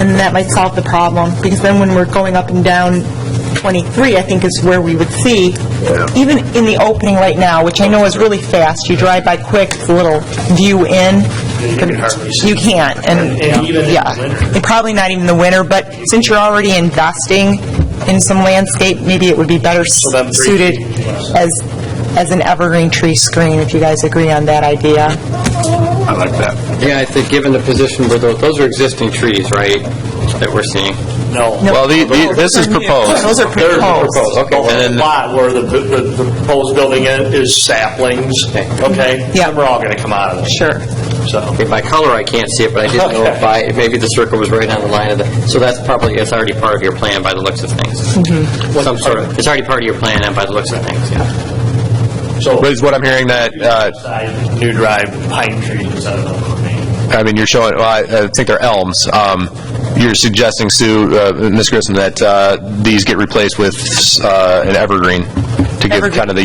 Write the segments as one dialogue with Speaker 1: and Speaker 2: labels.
Speaker 1: and that might solve the problem, because then when we're going up and down 23, I think is where we would see, even in the opening right now, which I know is really fast, you drive by quick, it's a little view in.
Speaker 2: You can hardly see.
Speaker 1: You can't, and,
Speaker 2: And even in the
Speaker 1: yeah.
Speaker 2: winter.
Speaker 1: And Probably not even the winter, but since you're already investing in some landscape, maybe it would be better
Speaker 2: then three
Speaker 1: suited
Speaker 2: trees.
Speaker 1: as, as an evergreen tree screen, if you guys agree on that idea.
Speaker 3: I like that.
Speaker 4: Yeah, I think given the position where those, those are existing trees, right, that we're seeing?
Speaker 2: No.
Speaker 1: No.
Speaker 3: Well, the- the- this is proposed.
Speaker 1: Those are
Speaker 4: They're
Speaker 1: proposed.
Speaker 4: Okay,
Speaker 2: The
Speaker 4: and then,
Speaker 2: lot where the the- the proposed building is- is saplings, okay?
Speaker 1: Yeah.
Speaker 2: We're all going to come out of it.
Speaker 1: Sure.
Speaker 2: So,
Speaker 4: okay, by color, I can't see it, but I didn't know if I, maybe the circle was right on the line of the, so that's probably, it's already part of your plan by the looks of things. Some sort of, it's already part of your plan and by the looks of things, yeah.
Speaker 2: so
Speaker 3: But is what I'm hearing that, uh,
Speaker 2: side, new drive, pine trees, I don't know what I mean.
Speaker 3: I mean, you're showing, well, I I think they're elms. Um, You're suggesting, Sue, uh, Ms. Grissom, that uh, these get replaced with uh, an evergreen to give kind of the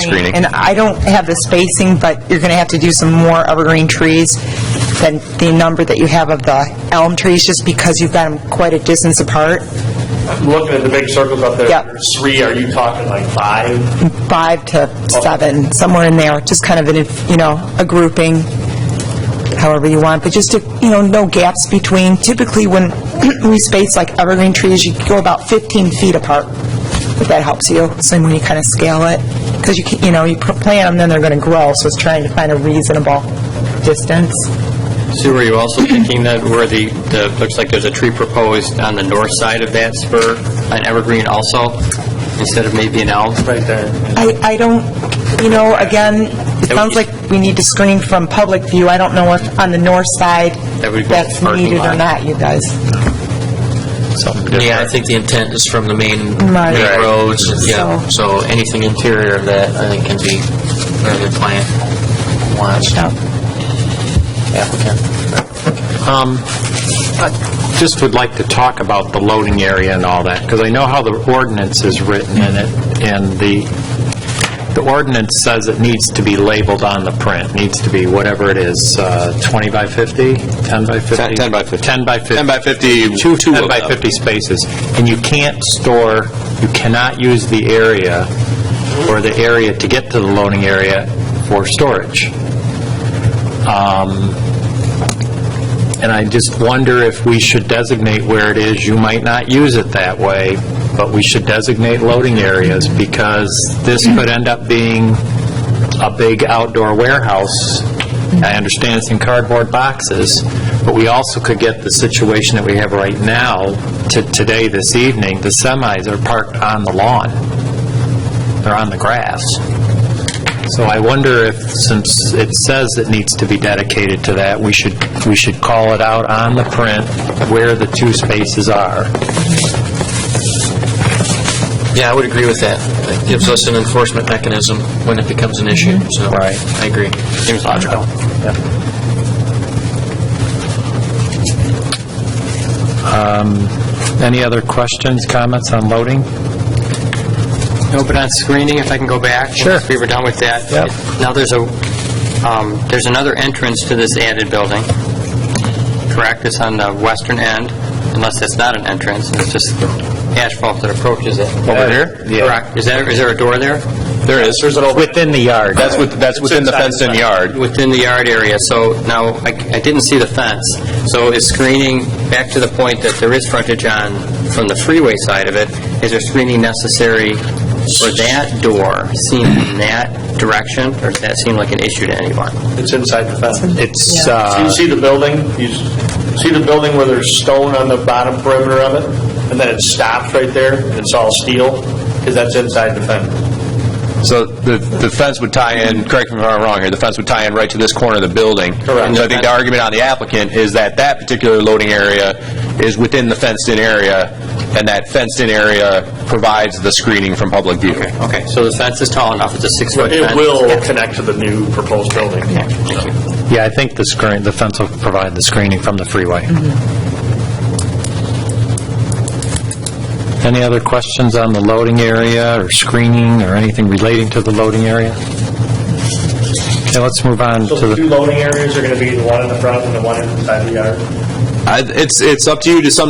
Speaker 1: Evergreen
Speaker 3: screening.
Speaker 1: And I don't have the spacing, but you're going to have to do some more evergreen trees than the number that you have of the elm trees, just because you've got them quite a distance apart,
Speaker 2: Looking at the big circles up there,
Speaker 1: Yeah.
Speaker 2: there's three, are you talking like five?
Speaker 1: five to seven, somewhere in there, just kind of in, a you know, a grouping, however you want, but just to, you know, no gaps between. Typically, when we space like evergreen trees, you go about 15 feet apart, if that helps you, same when you kind of scale it, because you, can- you know, you pr- plant them, then they're going to grow, so it's trying to find a reasonable distance.
Speaker 4: Sue, were you also thinking that where the, the, looks like there's a tree proposed on the north side of that spur, an evergreen also, instead of maybe an elm?
Speaker 2: Right there.
Speaker 1: I, I don't, you know, again, it sounds like we need to screen from public view. I don't know if on the north side
Speaker 4: That would be
Speaker 1: that's
Speaker 4: parking
Speaker 1: needed or
Speaker 4: lot.
Speaker 1: not, you guys.
Speaker 5: Yeah, I think the intent is from the main,
Speaker 1: Right.
Speaker 5: main
Speaker 1: Right.
Speaker 5: roads, and, yeah,
Speaker 1: So-
Speaker 5: so anything interior of that, I think, can be, where the client wants. Applicant.
Speaker 6: just would like to talk about the loading area and all that, because I know how the ordinance is written in it, and the, the ordinance says it needs to be labeled on the print, needs to be whatever it is, uh, 20 by 50, 10 by 50?
Speaker 3: 10 10 by 50.
Speaker 6: 10 by 50.
Speaker 3: 10 by 50,
Speaker 6: Two
Speaker 3: two
Speaker 6: 10 by
Speaker 3: of them.
Speaker 6: 50 spaces. And you can't store, you cannot use the area, or the area to get to the loading area for storage. And I just wonder if we should designate where it is. You might not use it that way, but we should designate loading areas because this could end up being a big outdoor warehouse. I understand it's in cardboard boxes, but we also could get the situation that we have right now to today, this evening, the semis are parked on the lawn. They're on the grass. So I wonder if, since it says it needs to be dedicated to that, we should, we should call it out on the print where the two spaces are.
Speaker 5: Yeah, I would agree with that. It gives us an enforcement mechanism when it becomes an issue, so.
Speaker 6: Right.
Speaker 5: I agree. Seems logical.
Speaker 6: Um, Any other questions, comments on loading?
Speaker 4: No, but on screening, if I can go back?
Speaker 6: Sure.
Speaker 4: If we were done with that.
Speaker 6: Yep.
Speaker 4: Now, there's a, um, there's another entrance to this added building, correct? It's on the western end, unless that's not an entrance, and it's just asphalt that approaches it.
Speaker 3: Over here?
Speaker 6: Yeah.
Speaker 4: Correct. Is there, is there a door there?
Speaker 3: There is. There's an open...
Speaker 6: Within the yard.
Speaker 3: That's with- that's within the fenced-in yard.
Speaker 4: Within the yard area, so now, I I didn't see the fence. So is screening, back to the point that there is frontage on, from the freeway side of it, is there screening necessary for that door seen in that direction, or does that seem like an issue to anyone?
Speaker 2: It's inside the fence.
Speaker 6: It's,
Speaker 1: Yeah.
Speaker 2: So you
Speaker 6: uh,
Speaker 2: see the building, you s- see the building where there's stone on the bottom perimeter of it, and then it stops right there, and it's all steel, because that's inside the fence.
Speaker 3: So the the fence would tie in, correct me if I'm wrong here, the fence would tie in right to this corner of the building.
Speaker 2: Correct.
Speaker 3: So I think the argument on the applicant is that that particular loading area is within the fenced-in area, and that fenced-in area provides the screening from public view.
Speaker 4: Okay, so the fence is tall enough, it's a six-foot fence?
Speaker 2: It will connect to the new proposed building.
Speaker 6: yeah, I think the screen, the fence will provide the screening from the freeway. Any other questions on the loading area or screening or anything relating to the loading area? Okay, let's move on to
Speaker 2: So
Speaker 6: the...
Speaker 2: the two loading areas are going to be the one in the front and the one inside the yard?
Speaker 3: I- It's, it's up to you to some